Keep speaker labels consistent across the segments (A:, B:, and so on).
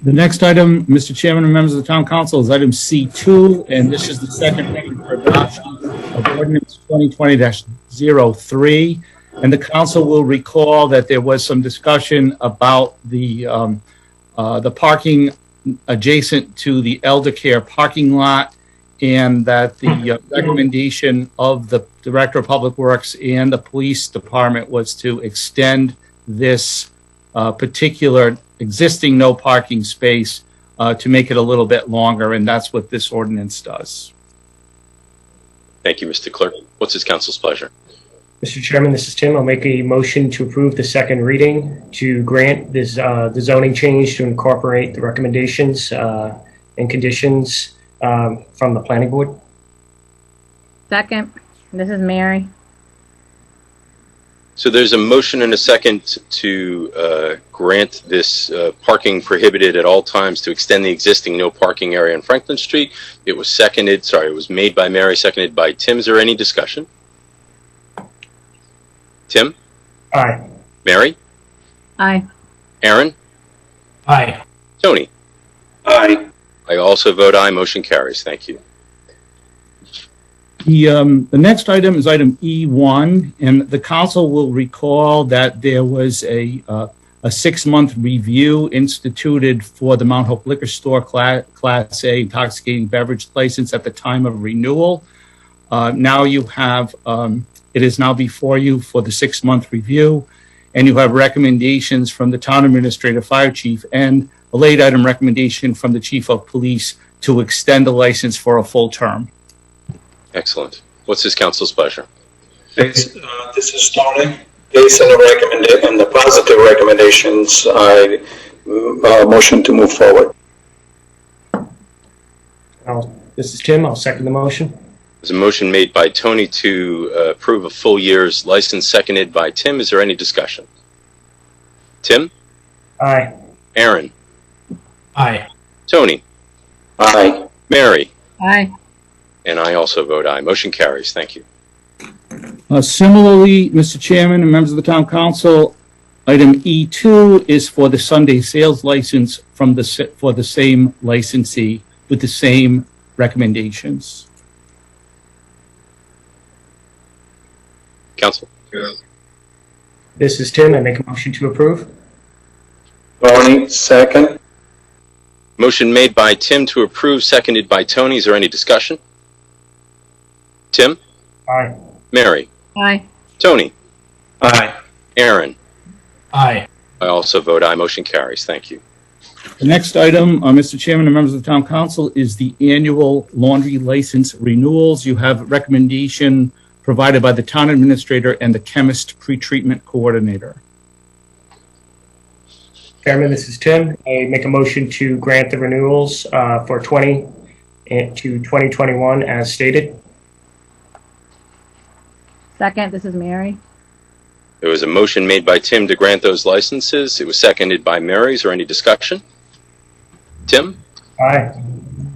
A: The next item, Mr. Chairman and members of the town council, is item C2, and this is the second reading for adoption of ordinance 2020-03. And the council will recall that there was some discussion about the, um, uh, the parking adjacent to the elder care parking lot and that the uh, recommendation of the Director of Public Works and the Police Department was to extend this uh, particular existing no parking space uh, to make it a little bit longer, and that's what this ordinance does.
B: Thank you, Mr. Clerk. What's his council's pleasure?
C: Mr. Chairman, this is Tim. I'll make a motion to approve the second reading to grant this, uh, the zoning change to incorporate the recommendations, uh, and conditions, um, from the planning board.
D: Second, this is Mary.
B: So there's a motion and a second to uh, grant this uh, parking prohibited at all times to extend the existing no parking area on Franklin Street. It was seconded, sorry, it was made by Mary, seconded by Tim. Is there any discussion? Tim?
C: Aye.
B: Mary?
D: Aye.
B: Aaron?
C: Aye.
B: Tony?
E: aye,
B: I also vote aye. Motion carries. Thank you.
A: The, um, the next item is item E1, and the council will recall that there was a, uh, a six-month review instituted for the Mount Hope Liquor Store Cla- Class A intoxicating beverage license at the time of renewal. Uh, now you have, um, it is now before you for the six-month review, and you have recommendations from the town administrator, fire chief, and a late item recommendation from the chief of police to extend the license for a full term.
B: Excellent. What's his council's pleasure?
E: Based, uh, this is Tony. Based on the recommendation, on the positive recommendations, I, uh, motion to move forward.
C: I'll, this is Tim. I'll second the motion.
B: There's a motion made by Tony to uh, approve a full year's license, seconded by Tim. Is there any discussion? Tim,
C: Aye.
B: Aaron,
C: Aye.
B: Tony,
E: Aye,
B: Mary,
D: Aye.
B: and I also vote aye. Motion carries. Thank you.
A: Uh, Similarly, Mr. Chairman and members of the town council, item E2 is for the Sunday sales license from the, sa- for the same licensee with the same recommendations.
B: Council,
C: This is Tim. I make a motion to approve.
E: Tony, second.
B: motion made by Tim to approve, seconded by Tony. Is there any discussion? Tim,
C: Aye.
B: Mary,
D: Aye.
B: Tony,
E: Aye.
B: Aaron,
C: Aye.
B: I also vote aye. Motion carries. Thank you.
A: The next item, uh, Mr. Chairman and members of the town council, is the annual laundry license renewals. You have recommendation provided by the town administrator and the chemist pretreatment coordinator.
C: Chairman, this is Tim. I make a motion to grant the renewals, uh, for 20 and to 2021 as stated.
D: Second, this is Mary.
B: There was a motion made by Tim to grant those licenses. It was seconded by Mary. Is there any discussion? Tim,
C: Aye.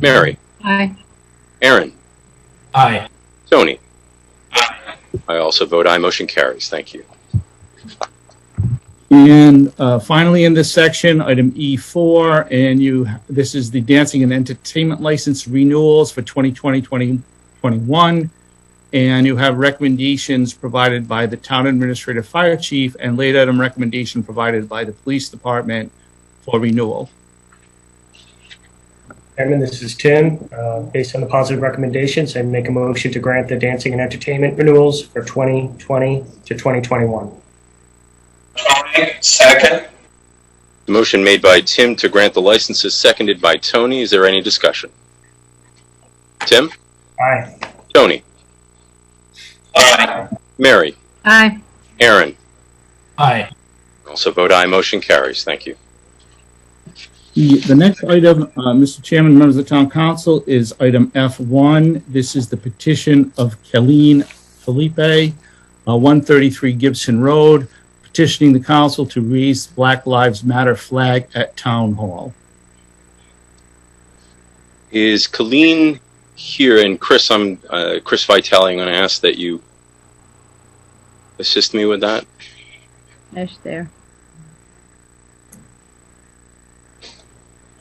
B: Mary,
D: Aye.
B: Aaron,
C: Aye.
B: Tony. I also vote aye. Motion carries. Thank you.
A: And uh, finally, in this section, item E4, and you, this is the dancing and entertainment license renewals for 2020, 2021. And you have recommendations provided by the town administrative fire chief and late item recommendation provided by the police department for renewal.
C: Chairman, this is Tim. Uh, Based on the positive recommendations, I make a motion to grant the dancing and entertainment renewals for 2020 to 2021.
E: Tony, second.
B: The motion made by Tim to grant the licenses, seconded by Tony. Is there any discussion? Tim,
C: Aye.
B: Tony,
E: Aye.
B: Mary,
D: Aye.
B: Aaron.
C: Aye.
B: I Also vote aye. Motion carries. Thank you.
A: The the next item, uh, Mr. Chairman, members of the town council, is item F1. This is the petition of Colleen Felipe, uh, 133 Gibson Road, petitioning the council to raise Black Lives Matter flag at Town Hall.
B: Is Colleen here? And Chris, I'm uh, Chris Vitale. I'm going to ask that you assist me with that.
D: There's there.